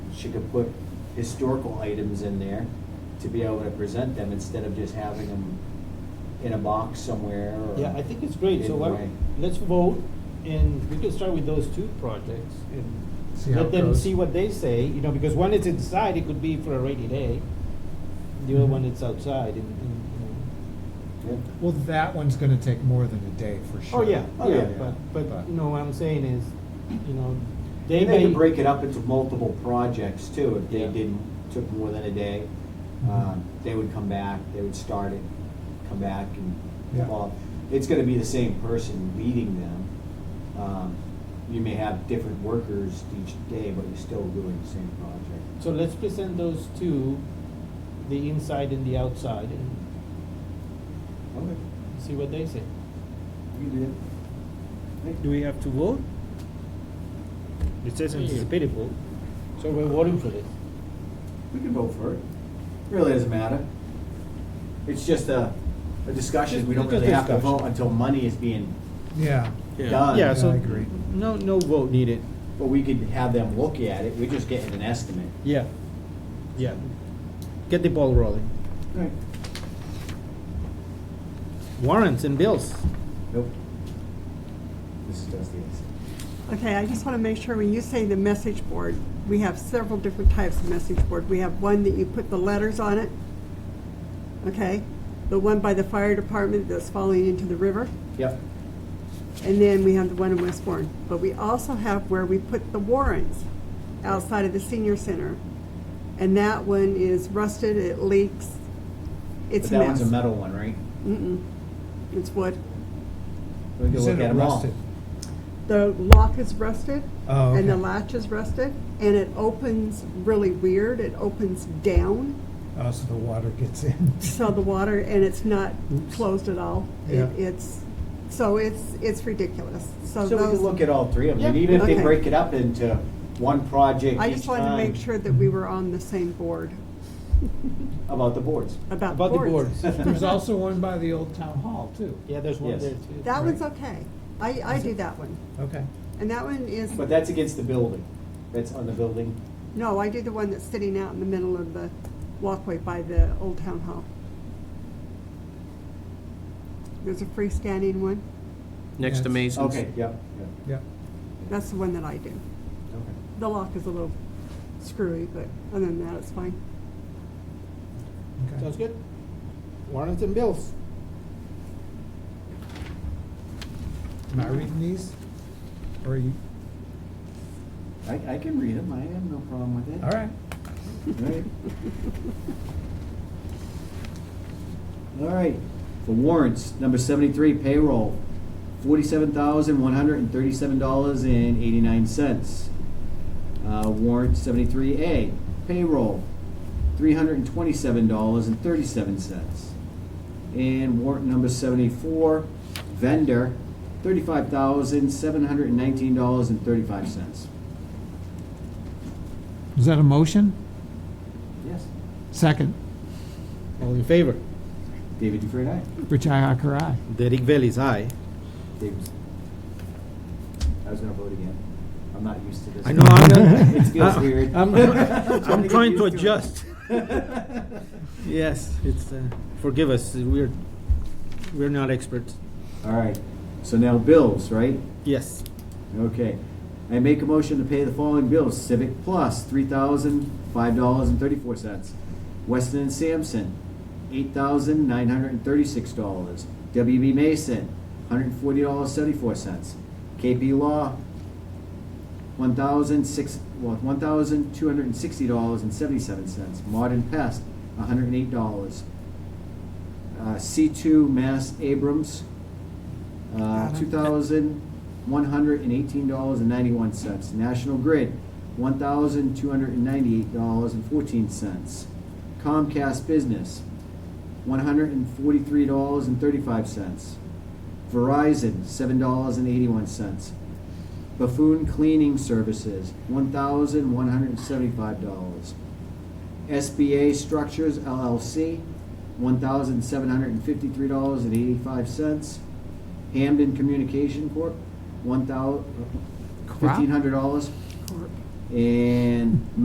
she could put historical items in there to be able to present them instead of just having them in a box somewhere or. Yeah, I think it's great, Either so why- way. let's vote, and we can start with those two projects, See and how let it them goes. see what they say, you know, because one is inside, it could be for a rainy day, the other one is outside, and, and, you Yeah. Well, that one's gonna take more than a day for know. Oh, sure. yeah, Oh, yeah, yeah, yeah. but, but, But- you know, what I'm saying is, you know, they And may. they could break it up into multiple projects too, if they Yeah. Mm-hmm. didn't, took more than a day. Um, They would come back, they would start it, come back and Yeah. evolve. It's gonna be the same person leading them. Um, You may have different workers each day, but you're still doing the same project. So let's present those two, the inside and the outside, and Okay, see what they say. you do it. Do we have to vote? It says anticipated vote. So we're voting for this. We can vote for it. Really doesn't matter. It's just a, a discussion. Just- We don't just really have to discussion. vote until money is being Yeah, done. Yeah, so, I agree. no, no vote needed. But we could have them look at it, we're just getting an estimate. Yeah, yeah. Get the ball rolling. Right. Warrants and bills. Nope. This does the estimate. Okay, I just want to make sure, when you say the message board, we have several different types of message board. We have one that you put the letters on it, okay? The one by the fire department that's falling into the river, Yep, and then we have the one in Westbourne. But we also have where we put the warrants outside of the senior center. And that one is rusted, it leaks, but it's a that one's mess. a metal one, right? Mm-mm, it's wood. We can You look said at it them all. rusted. The lock is rusted. Oh, And the okay. latch is rusted, and it opens really weird, it opens down, Oh, so the water gets in. so the water, and it's not Oops. closed at all. It- Yeah. It's, so it's, it's ridiculous, so So we can those, look at all three of them, and Yeah. even if they Okay. break it up into one project I each just wanted to make time sure that we were on the same board about the boards. about About the boards. boards. There's also one by the old town hall too. Yeah, there's one Yes. there too. That one's Right. okay, I, I Is do it- that one, Okay. and that one is, But that's against the building, that's on the building. no, I do the one that's sitting out in the middle of the walkway by the old town hall. There's a freestanding one, Next to Yes. Oh, Mason's. Okay, yep, yep, Yeah. that's the one that I do. okay. The lock is a little screwy, but other than that, it's fine. Sounds good. Warrants and bills. Am I reading these? Or are you, I, I can read them, I have no problem with it. all right. Alright. All right, for warrants, number seventy-three payroll, forty-seven thousand, one hundred and thirty-seven dollars and eighty-nine cents. Uh, warrant seventy-three A, payroll, three hundred and twenty-seven dollars and thirty-seven cents. And warrant number seventy-four, vendor, thirty-five thousand, seven hundred and nineteen dollars and thirty-five cents. Is that a motion? Yes. Second. All in favor? David Dufresne, aye. Rich Ihacker, aye. Derek Bailey's aye. Dave's. I was gonna vote again. I'm not used to this. I know, I'm gonna. It feels weird. I'm, Trying I'm to trying get to used to it. adjust. Yes, it's, uh, forgive us, we're, we're not experts. All right, so now bills, right? Yes. Okay. I make a motion to pay the following bills. Civic Plus, three thousand, five dollars and thirty-four cents. Weston and Sampson, eight thousand, nine hundred and thirty-six dollars. WB Mason, hundred and forty dollars, seventy-four cents. KP Law, one thousand six, well, one thousand, two hundred and sixty dollars and seventy-seven cents. Modern Pest, hundred and eight dollars. Uh, C two Mass Abrams, uh, Adam. two thousand one hundred and eighteen dollars and ninety-one cents. National Grid, one thousand two hundred and ninety-eight dollars and fourteen cents. Comcast Business, one hundred and forty-three dollars and thirty-five cents. Verizon, seven dollars and eighty-one cents. Buffoon Cleaning Services, one thousand one hundred and seventy-five dollars. SBA Structures LLC, one thousand seven hundred and fifty-three dollars and eighty-five cents. Hamden Communication Corp., one uh, thousand, Crap. fifteen hundred dollars. Corp. And